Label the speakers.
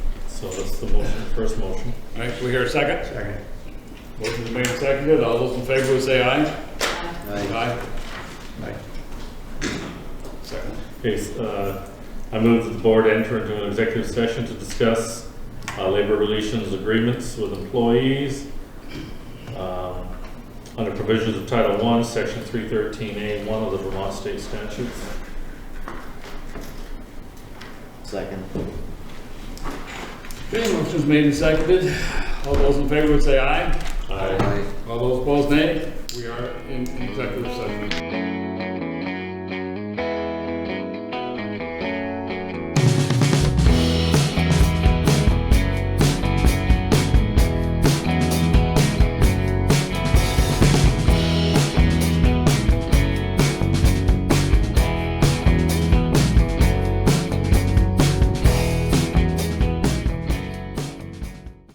Speaker 1: So that's the motion, first motion.
Speaker 2: All right, can we hear a second?
Speaker 3: Second.
Speaker 2: Motion is made and seconded, all those in favor would say aye.
Speaker 3: Aye. Aye.
Speaker 2: Second.
Speaker 1: Okay, s- uh, I move that the board enter into an executive session to discuss uh, labor relations agreements with employees um, under provisions of Title I, Section 313A1 of the Vermont State Statutes.
Speaker 3: Second.
Speaker 2: Okay, motion is made and seconded, all those in favor would say aye.
Speaker 1: Aye.
Speaker 3: Aye.
Speaker 2: All those opposed, nay. We are in executive session.